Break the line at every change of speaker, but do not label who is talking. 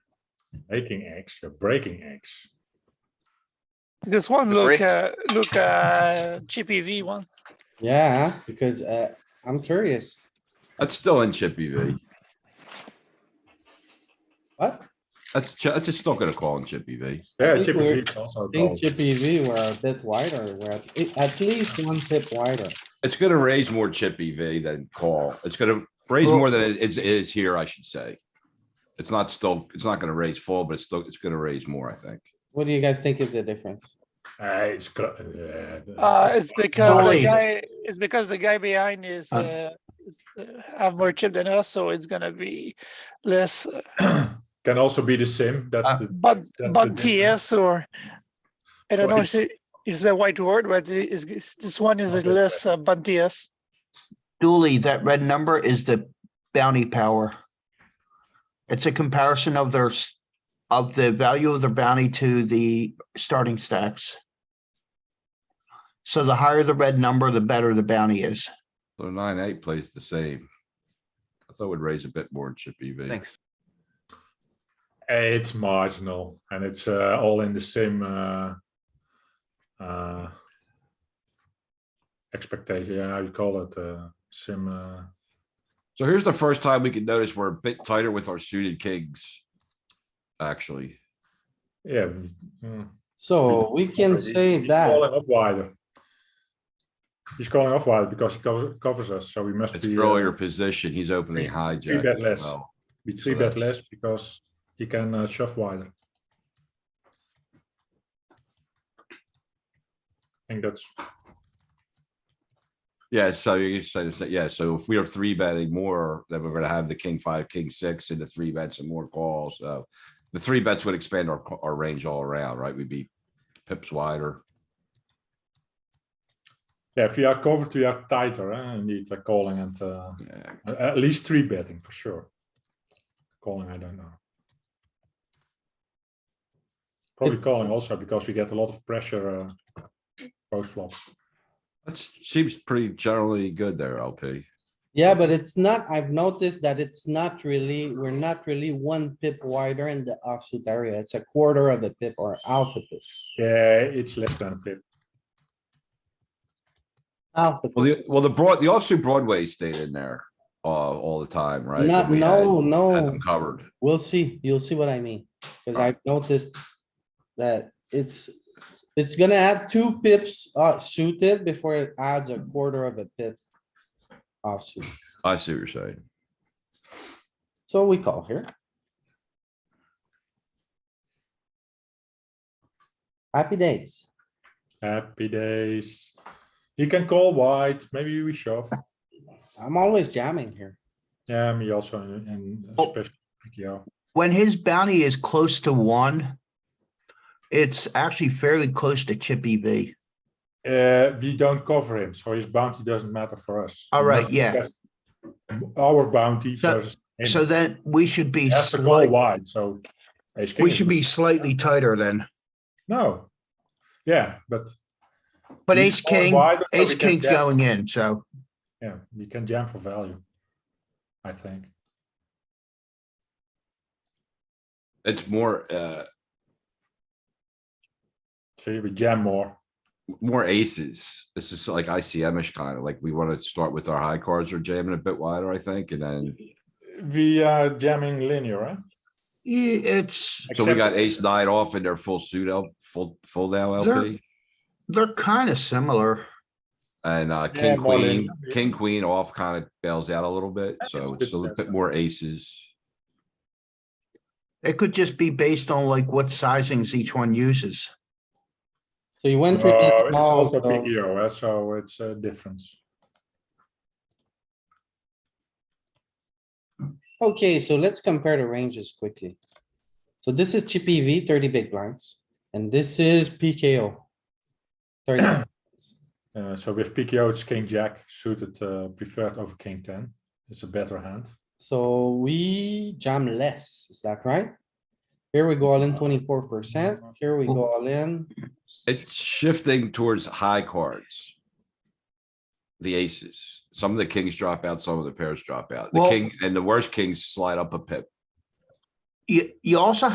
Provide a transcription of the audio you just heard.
Making eggs, you're breaking eggs.
This one
Agree.
look, uh, look, uh, GPV one.
Yeah, because uh, I'm curious.
That's still in chip EV.
What?
That's, ch- that's just still gonna call in chip EV.
I
Yeah,
think
chip
we're-
is also
I think
called.
Chippy V were a bit wider, we're at- eh, at least one pip wider.
It's gonna raise more chip EV than call. It's gonna raise more than it is, is here, I should say. It's not still, it's not gonna raise full, but it's still, it's gonna raise more, I think.
What do you guys think is the difference?
Uh, it's got, uh, the-
Uh, it's because the
Nine.
guy, it's because the guy behind is,
Uh,
uh, is, uh, have more chip than us, so it's gonna be less, uh,
Can also be the sim, that's
Uh,
the,
but,
the
but
difference.
TS or. I don't know,
Well,
if it is the white word, but it is, is- this one is the
Okay.
less, uh, but TS.
Dooley, that red number is the bounty power. It's a comparison of their, s- of the value of their bounty to the starting stacks. So the higher the red number, the better the bounty is.
So nine, eight plays the same. I thought it would raise a bit more in chip EV.
Thanks.
eh, it's marginal and it's uh, all in the same uh, uh, expectation, yeah, how you call it, uh, sim, uh,
So here's the first time we can notice we're a bit tighter with our suited kings. Actually,
yeah. we- mm.
So we can
He's-
say
he's
that,
Calling off wider. He's calling off wider because he covers, covers us, so we must
it's
be. uh,
earlier position. He's opening
three-
high
three bet less.
well.
Be three
So
bet less
that's-
because he can uh, shove wider. I think that's,
Yeah, so you say to say, yeah, so if we are three betting more, then we're gonna have the king five, king six and the three bets and more calls, so. The three bets would expand our, ca- our range all around, right? We'd be pips wider.
yeah, if we are covered, we are tighter, eh, indeed, uh, calling and, uh,
Yeah,
a- at least three betting for sure. Calling, I don't know. Probably
It's-
calling also because we get a lot of pressure, uh, post flop.
that seems pretty generally good there, LP.
yeah, but it's not, I've noticed that it's not really, we're not really one pip wider in the offsuit area, it's a quarter of the pip or alpha pip.
Yeah, it's less than a pip.
Alpha,
Well,
pip.
the, well, the broad, the offsuit Broadway stayed in there, uh, all the time, right?
not,
But we had-
no,
had
no,
them Covered.
we'll see, you'll see what I mean, cuz I've noticed that it's, it's gonna add two pips uh suited before it adds a quarter of a pip offsuit,
I see what you're saying.
so we call here. Happy days.
Happy days. He can call white, maybe we shove.
I'm always jamming here.
Yeah, me also in, in
Oh.
especially, yeah,
When his bounty is close to one, it's actually fairly close to chip E EV.
uh, we don't cover him, so his bounty doesn't matter for us.
All right,
Because-
yeah.
because Our bounty
So-
versus him.
So then we should
He
be,
has to call
slight-
wide, so. ace king
we
is
should
good.
be slightly tighter then,
No, yeah, but.
but
he's
ace
calling
king,
wider, so
ace
we can
king's
jam-
going in, so.
Yeah, we can jam for value, I think.
It's more, uh,
See, we jam more.
more aces. This is like ICM-ish kind of like we want to start with our high cards or jamming a bit wider, I think, and then.
We are jamming linear, eh?
Yeah, it's,
So we
Except-
got ace nine off and they're full suit out, full, full now
They're-
LP.
they're kind of similar.
And uh,
Yeah,
king,
more than-
queen, king, queen off kind of bails out a little bit,
That makes
so
good
it's a little
sense,
bit
yeah.
more aces.
It could just be based on like what sizings each one uses.
So you went
No,
really
Uh, it's
small,
also
so-
big EO, eh, so it's a difference.
Okay, so let's compare the ranges quickly. So this is Chippy V thirty big blinds, and this is PKO. 30.
Uh, so with PKO, it's king jack suited uh, preferred over king ten. It's a better hand.
So we jam less, is that right? Here we go all in twenty-four percent, here we go all in,
It's shifting towards high cards. The aces, some of the kings drop out, some of the pairs drop out. The
Well-
king and the worst kings slide up a pip.
You, you also